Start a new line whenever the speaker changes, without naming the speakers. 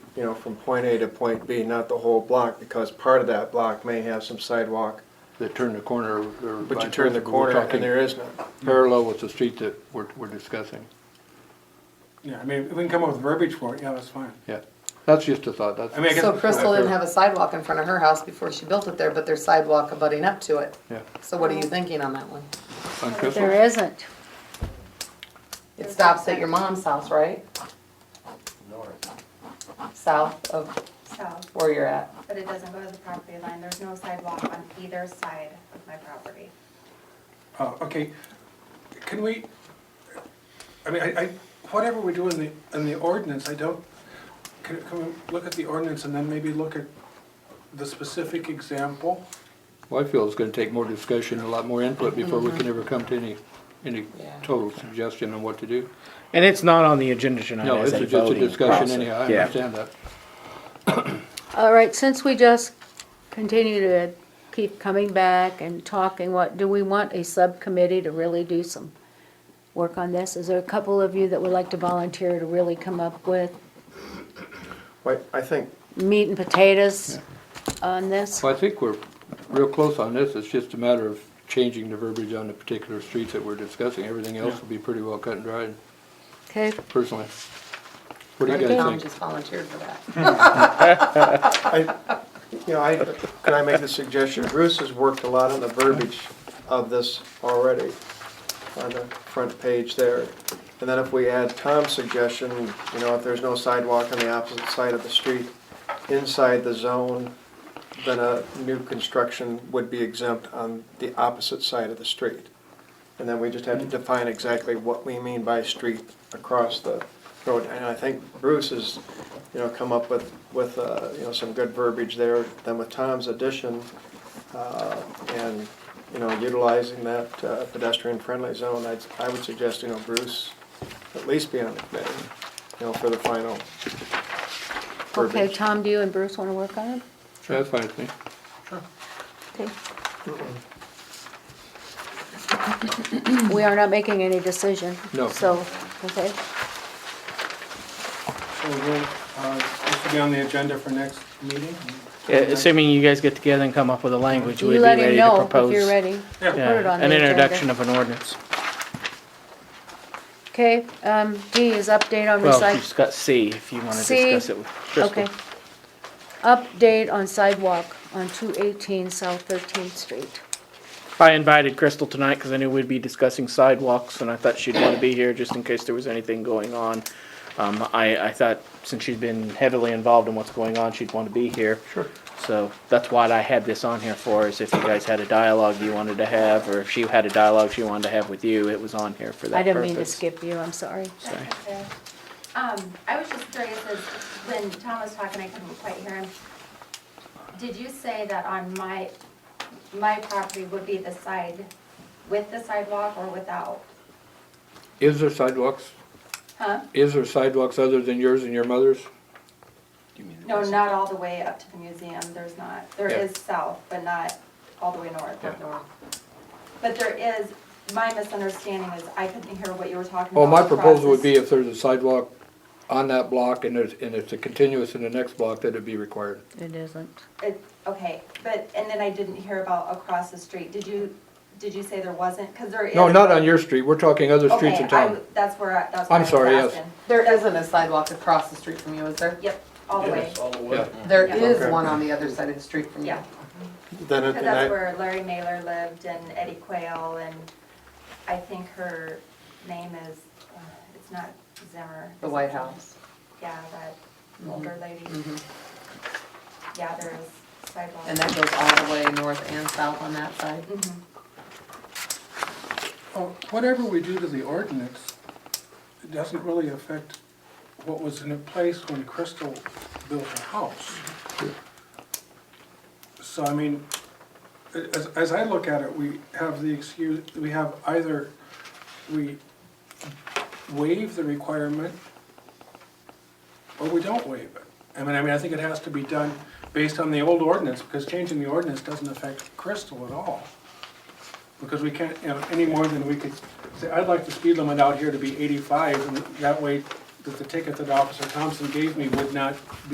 you know, from point A to point B, not the whole block, because part of that block may have some sidewalk,
that turn the corner or.
but you turn the corner and there is none.
Parallel with the street that we're, we're discussing,
Yeah, I mean, if we can come up with verbiage for it, yeah, that's fine.
yeah. That's just a thought, that's,
I mean, I guess.
So Crystal didn't have a sidewalk in front of her house before she built it there, but there's sidewalk abutting up to it.
yeah.
So what are
Oh.
you thinking on that one?
On Crystal?
There isn't.
It stops at your mom's house, right? North. South of
south,
where you're at.
but it doesn't go to the property line. There's no sidewalk on either side of my property.
Oh, okay. Can we, I mean, I, I, whatever we do in the, in the ordinance, I don't, can, can we look at the ordinance and then maybe look at the specific example?
Well, I feel it's gonna take more discussion, a lot more input before we can ever come to any, any
Yeah.
total suggestion on what to do.
And it's not on the agenda tonight
No,
as
it's
a
just a
voting
discussion
process.
anyhow, I
Yeah.
understand that.
All right, since we just continue to keep coming back and talking, what, do we want a subcommittee to really do some work on this? Is there a couple of you that would like to volunteer to really come up with
But I think,
meat and potatoes on this?
Well, I think we're real close on this, it's just a matter of changing the verbiage on the particular streets that we're discussing. Everything else will be pretty well cut and dried,
Okay,
personally. What do you
Tom
guys think?
just volunteered for that.
I, you know, I, can I make the suggestion? Bruce has worked a lot on the verbiage of this already, on the front page there. And then if we add Tom's suggestion, you know, if there's no sidewalk on the opposite side of the street, inside the zone, then a new construction would be exempt on the opposite side of the street. And then we just have to define exactly what we mean by street across the road. And I think Bruce has, you know, come up with, with, uh, you know, some good verbiage there. Then with Tom's addition, uh, and, you know, utilizing that uh, pedestrian-friendly zone, I'd, I would suggest, you know, Bruce at least be on the committee, you know, for the final
okay,
verbiage.
Tom, do you and Bruce wanna work on it?
That's fine with me.
Okay. We are not making any decision.
No.
So, okay,
So we'll, uh, this will be on the agenda for next meeting?
Yeah, Uh, Assuming you guys get together and come up with a language, we'd
you
be
let him
ready to
know if
propose.
you're ready.
Yeah.
Put it
yeah,
on the
An introduction
agenda.
of an ordinance.
Okay, um, D is update on
Well,
recycling.
you've got C if you want to
C,
discuss it with Crystal.
Okay. Update on sidewalk on two eighteen South Thirteenth Street.
I invited Crystal tonight because I knew we'd be discussing sidewalks and I thought she'd want to be here just in case there was anything going on. Um, I, I thought since she's been heavily involved in what's going on, she'd want to be here. Sure. So that's what I had this on here for, is if you guys had a dialogue you wanted to have, or if she had a dialogue she wanted to have with you, it was on here for that
I
purpose.
didn't mean to skip you, I'm sorry.
Sorry.
Um, I was just curious, as when Tom was talking, I couldn't quite hear him. Did you say that on my, my property would be the side with the sidewalk or without?
Is there sidewalks?
Huh?
Is there sidewalks other than yours and your mother's?
No, not all the way up to the museum, there's not. There
Yeah.
is south, but not all the way north,
Yeah.
up north. But there is, my misunderstanding is I couldn't hear what you were talking about.
Well, my
across
proposal
the
would be if there's a sidewalk on that block and it's, and it's a continuous in the next block, that it'd be required.
It isn't.
It, okay, but, and then I didn't hear about across the street. Did you, did you say there wasn't? Because there is.
No, not on your street, we're talking other streets in
Okay, I
town.
w- that's where, I-
I'm
that's what I was
sorry, yes.
asking.
There isn't a sidewalk across the street from you, is there?
Yep, all the way,
Yeah.
There
Yeah.
is one on the other side of the street from you.
yeah.
Then, it-
Because
and
that's
I,
where Larry Mailer lived and Eddie Quayle and I think her name is, uh, it's not Zimmer.
The White House. Mm-hmm.
Yeah, that older lady. Yeah, there is sidewalk.
And that goes all the way north and south on that side.
Mhm.
Well, Oh, Whatever we do to the ordinance, it doesn't really affect what was in place when Crystal built her house. So I mean, a- as, as I look at it, we have the excuse, we have either, we waive the requirement or we don't waive it. I mean, I mean, I think it has to be done based on the old ordinance, because changing the ordinance doesn't affect Crystal at all. Because we can't, you know, any more than we could, say, I'd like the speed limit out here to be eighty-five, and that way, that the ticket that Officer Thompson gave me would not be